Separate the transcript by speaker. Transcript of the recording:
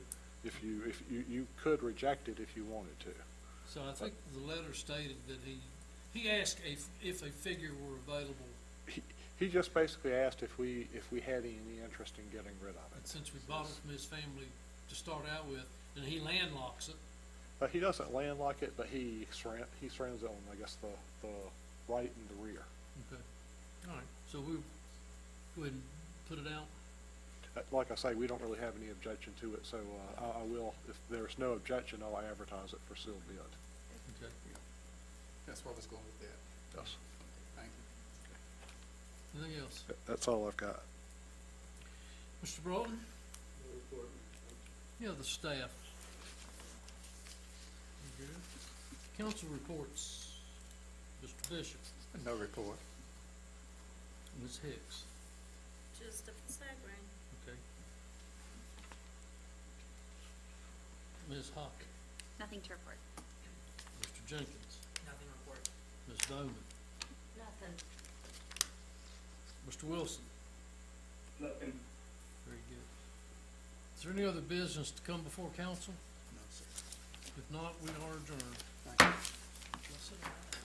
Speaker 1: if you, if you, you could reject it if you wanted to.
Speaker 2: So I think the letter stated that he, he asked if, if a figure were available,
Speaker 1: He, he just basically asked if we, if we had any interest in getting rid of
Speaker 2: and
Speaker 1: it.
Speaker 2: since we bought it from his family to start out with, and he landlocks it,
Speaker 1: But he doesn't landlock it, but he surround, he surrounds it on, I guess, the, the right and the rear.
Speaker 2: okay, all right, so we, go ahead and put it out,
Speaker 1: Uh, Like I say, we don't really have any objection to it, so, uh, I, I will, if there's no objection, I'll advertise it for sealed bid.
Speaker 2: okay?
Speaker 3: That's where I was going with that.
Speaker 1: Yes.
Speaker 3: Thank you.
Speaker 2: Anything else?
Speaker 1: That's all I've got.
Speaker 2: Mr. Broughton? Yeah, the staff. You good? Council reports, Mr. Bishop,
Speaker 3: No report.
Speaker 2: Ms. Hicks,
Speaker 4: Just a facade ring.
Speaker 2: okay? Ms. Hawk,
Speaker 5: Nothing to report.
Speaker 2: Mr. Jenkins,
Speaker 4: Nothing report.
Speaker 2: Ms. Bowman,
Speaker 4: Nothing.
Speaker 2: Mr. Wilson,
Speaker 6: Nothing.
Speaker 2: very good. Is there any other business to come before council?
Speaker 3: No, sir.
Speaker 2: If not, we are adjourned.
Speaker 3: Thank you.
Speaker 2: That's it.